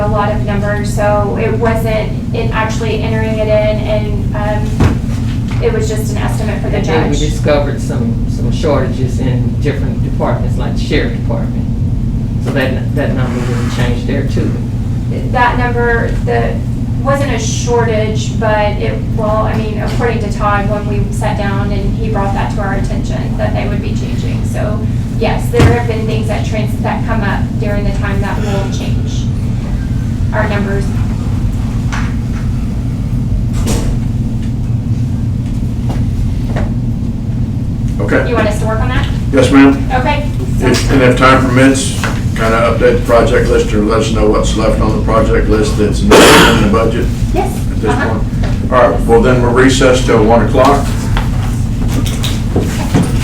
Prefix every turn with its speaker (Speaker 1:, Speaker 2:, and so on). Speaker 1: lot of numbers, so it wasn't, it actually entering it in and, um, it was just an estimate for the
Speaker 2: And then we
Speaker 1: judge.
Speaker 2: discovered some, some shortages in different departments, like the sheriff department. So that, that number would change there too.
Speaker 1: That number, the, wasn't a shortage, but it, well, I mean, according to Todd, when we sat down and he brought that to our attention, that they would be changing. So, yes, there have been things that trans, that come up during the time that will change our numbers. You
Speaker 3: Okay,
Speaker 1: want us to work on that?
Speaker 3: yes, ma'am.
Speaker 1: Okay.
Speaker 3: If- And if time permits, kind of update the project list or let us know what's left on the project list that's not in the budget
Speaker 1: Yes.
Speaker 3: at this
Speaker 1: uh-huh.
Speaker 3: point. All right, well then we're recessed till 1 o'clock.